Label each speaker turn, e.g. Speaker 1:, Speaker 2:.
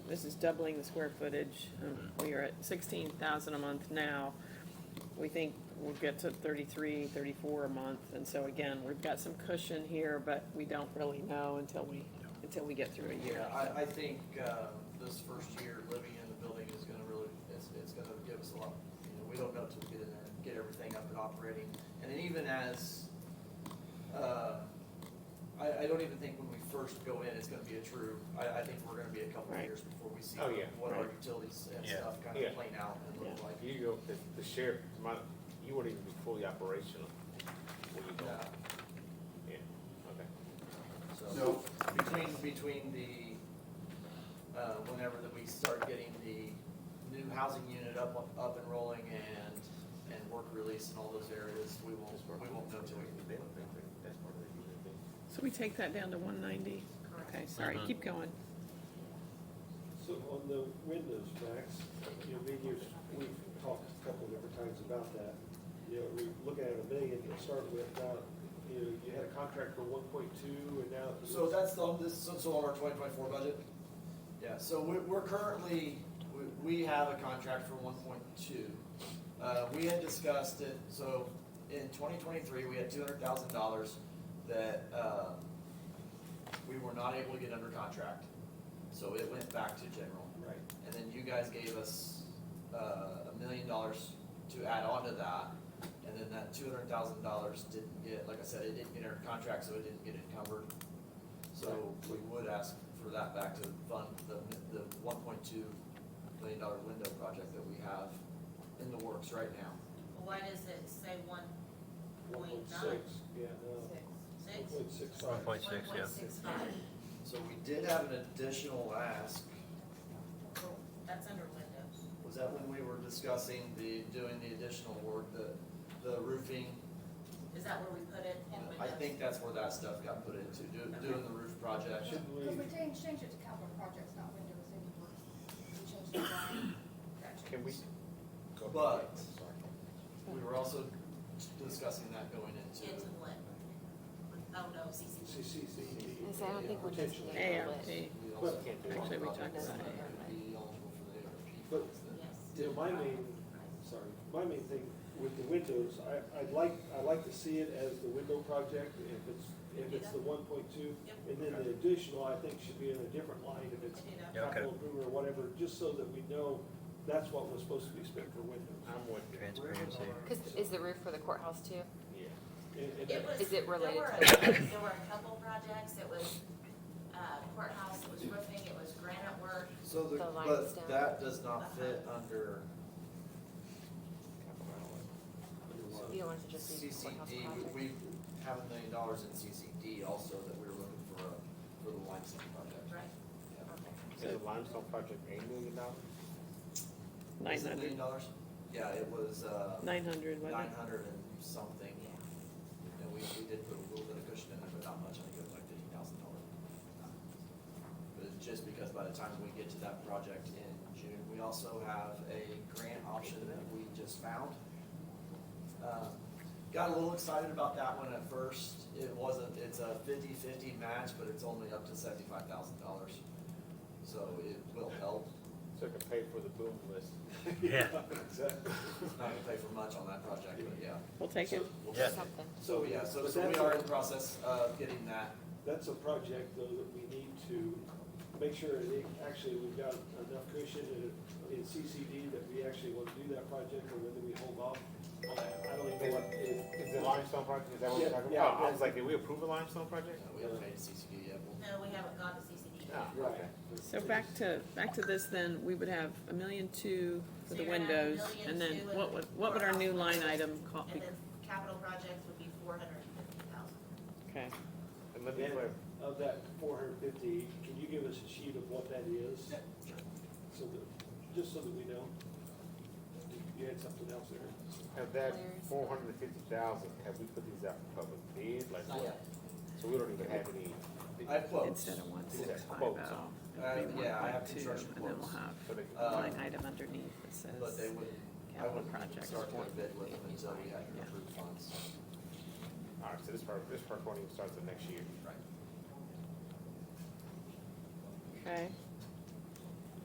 Speaker 1: this is doubling the square footage. Um, We are at sixteen thousand a month now. We think we'll get to 33, 34 a month, and so again, we've got some cushion here, but we don't really know until we, until we get through a year.
Speaker 2: Yeah, I, I think, uh, this first year living in the building is gonna really, it's, it's gonna give us a lot, you know, we don't know till we get in there, get everything up and operating. And then even as, uh, I, I don't even think when we first go in, it's gonna be a true, I, I think we're gonna be a couple of
Speaker 1: Right.
Speaker 2: years before we see
Speaker 3: Oh, yeah.
Speaker 2: what our
Speaker 1: Right.
Speaker 2: utilities and
Speaker 4: Yeah.
Speaker 2: stuff kind
Speaker 3: Yeah.
Speaker 2: of playing out and look
Speaker 1: Yeah.
Speaker 2: like.
Speaker 3: You go, the, the sheriff, my, you wouldn't even be fully operational when you go,
Speaker 2: Uh,
Speaker 3: yeah, okay.
Speaker 2: So, between, between the, uh, whenever that we start getting the new housing unit up, up and rolling and, and work release and all those areas, we won't, we won't know till we.
Speaker 3: That's part of the-
Speaker 1: So we take that down to one ninety? Okay, sorry,
Speaker 4: Mhm.
Speaker 1: keep going.
Speaker 5: So on the windows, Max, you know, me and you, we've talked a couple of different times about that. You know, we look at a million to start with, now, you know, you had a contract for one point two and now.
Speaker 2: So that's the, this, so- so on our twenty twenty-four budget? Yeah, so we're, we're currently, we, we have a contract for one point two. Uh, we had discussed it, so in twenty twenty-three, we had two hundred thousand dollars that, uh, we were not able to get under contract. So it went back to general.
Speaker 5: Right,
Speaker 2: And then you guys gave us, uh, a million dollars to add on to that. And then that two hundred thousand dollars didn't get, like I said, it didn't get under contract, so it didn't get encumbered. So we would ask for that back to fund the, the one point two million dollar window project that we have in the works right now.
Speaker 6: Why does it say one
Speaker 5: one
Speaker 6: Point
Speaker 5: point six, yeah, no, one
Speaker 6: six?
Speaker 5: point six
Speaker 4: One
Speaker 5: five.
Speaker 4: point six, yeah.
Speaker 6: One point six five,
Speaker 2: So we did have an additional ask.
Speaker 6: Well, that's under windows.
Speaker 2: Was that when we were discussing the, doing the additional work, the, the roofing?
Speaker 6: Is that where we put it in windows?
Speaker 2: I think that's where that stuff got put into, doing, doing the roof project.
Speaker 5: Should we,
Speaker 7: Because we changed, changed it to capital projects, not windows anymore. We changed the line. Gotcha.
Speaker 3: Can we? go-
Speaker 2: But- We were also discussing that going into,
Speaker 6: Into what? Oh, no, CCD.
Speaker 5: CCCD?
Speaker 8: I say, I don't think we're just
Speaker 5: Potentially.
Speaker 8: gonna-
Speaker 1: AFP.
Speaker 2: we also
Speaker 3: Can't do it.
Speaker 1: Actually, we talked
Speaker 2: about
Speaker 1: about
Speaker 2: that
Speaker 1: it.
Speaker 2: be eligible for the ARP
Speaker 5: But-
Speaker 2: funds then.
Speaker 6: Yes.
Speaker 5: You know, my main, sorry, my main thing with the windows, I, I'd like, I like to see it as the window project, if it's, if it's the one point two.
Speaker 6: Yep.
Speaker 5: And then the additional, I think, should be in a different line, if it's
Speaker 6: You know,
Speaker 4: Yeah, okay.
Speaker 5: capital improvement or whatever, just so that we know that's what was supposed to be spent for windows.
Speaker 3: I'm with you.
Speaker 4: Transparency.
Speaker 8: Cause is the roof for the courthouse too?
Speaker 3: Yeah.
Speaker 5: And- and
Speaker 6: It was.
Speaker 8: Is it
Speaker 6: There
Speaker 8: related
Speaker 6: were,
Speaker 8: to-
Speaker 6: a- there were a couple projects, it was uh, courthouse, it was roofing, it was granite work,
Speaker 2: So the,
Speaker 8: The line is
Speaker 2: but
Speaker 8: down.
Speaker 2: that does not fit under
Speaker 8: So you don't want it to just be courthouse
Speaker 2: CCD,
Speaker 8: project?
Speaker 2: we have a million dollars in CCD also that we were looking for, uh, for the limestone project.
Speaker 6: right?
Speaker 3: Is the limestone project eight million dollars?
Speaker 1: Nine
Speaker 2: Is it a
Speaker 1: hundred,
Speaker 2: million dollars? Yeah, it was, uh,
Speaker 1: nine hundred, wasn't
Speaker 2: nine
Speaker 1: it?
Speaker 2: hundred and something,
Speaker 6: Yeah.
Speaker 2: and we, we did put a little bit of cushion in there, but not much, I think it was like fifty thousand dollars. But it's just because by the time we get to that project in June, we also have a grant option that we just found. Uh, Got a little excited about that one at first, it wasn't, it's a fifty-fifty match, but it's only up to seventy-five thousand dollars. So it will help,
Speaker 3: So it can pay for the boom list.
Speaker 4: Yeah.
Speaker 5: Exactly.
Speaker 2: It's not gonna pay for much on that project, but yeah.
Speaker 1: We'll take it.
Speaker 2: We'll-
Speaker 4: Yeah.
Speaker 8: Something.
Speaker 2: So, yeah, so,
Speaker 5: But
Speaker 2: so we
Speaker 5: that's
Speaker 2: are
Speaker 5: a-
Speaker 2: in the process of getting that,
Speaker 5: That's a project, though, that we need to make sure that it- actually we've got enough cushion in, in CCD that we actually want to do that project, or whether we hold off. on that. I don't even know what, if,
Speaker 3: Is the limestone project, is that what we're
Speaker 5: Yeah,
Speaker 3: talking
Speaker 5: yeah,
Speaker 3: about? I
Speaker 5: but-
Speaker 3: was like, did we approve a limestone project?
Speaker 2: uh, we haven't paid CCD yet, we'll
Speaker 6: No, we haven't gone to CCD.
Speaker 3: No,
Speaker 5: right.
Speaker 3: okay.
Speaker 1: So back to, back to this then, we would have a million two for
Speaker 6: So
Speaker 1: the
Speaker 6: you're gonna have a
Speaker 1: windows,
Speaker 6: million
Speaker 1: and then
Speaker 6: two and
Speaker 1: what would, what would our new
Speaker 6: courthouse.
Speaker 1: line item call?
Speaker 6: And then capital projects would be four hundred and fifty thousand.
Speaker 1: Okay,
Speaker 3: And let me,
Speaker 5: Yeah.
Speaker 3: clarify.
Speaker 5: Of that four hundred fifty, can you give us a sheet of what that is? So that, just so that we know. You had something else there?
Speaker 3: have that
Speaker 8: Where's-
Speaker 3: four hundred and fifty thousand, have we put these out for public bid? Like,
Speaker 2: Not
Speaker 3: what?
Speaker 2: yet.
Speaker 3: So we don't even have any.
Speaker 2: I have quotes.
Speaker 1: instead of one
Speaker 3: Is
Speaker 1: six
Speaker 3: that
Speaker 1: five
Speaker 3: quotes?
Speaker 1: oh,
Speaker 2: Uh,
Speaker 1: it'd be one
Speaker 2: yeah, I have
Speaker 1: point two,
Speaker 2: construction
Speaker 1: and then we'll
Speaker 2: quotes.
Speaker 1: have
Speaker 3: So
Speaker 1: a
Speaker 3: they-
Speaker 2: Uh,
Speaker 1: line item underneath that
Speaker 2: but they
Speaker 1: says
Speaker 2: wouldn't, I
Speaker 1: capital
Speaker 2: wouldn't
Speaker 1: projects.
Speaker 2: start to bid with them until we had
Speaker 1: Yeah.
Speaker 2: your approved funds.
Speaker 3: All right, so this part, this part won't even start till next year.
Speaker 2: Right.
Speaker 1: Okay,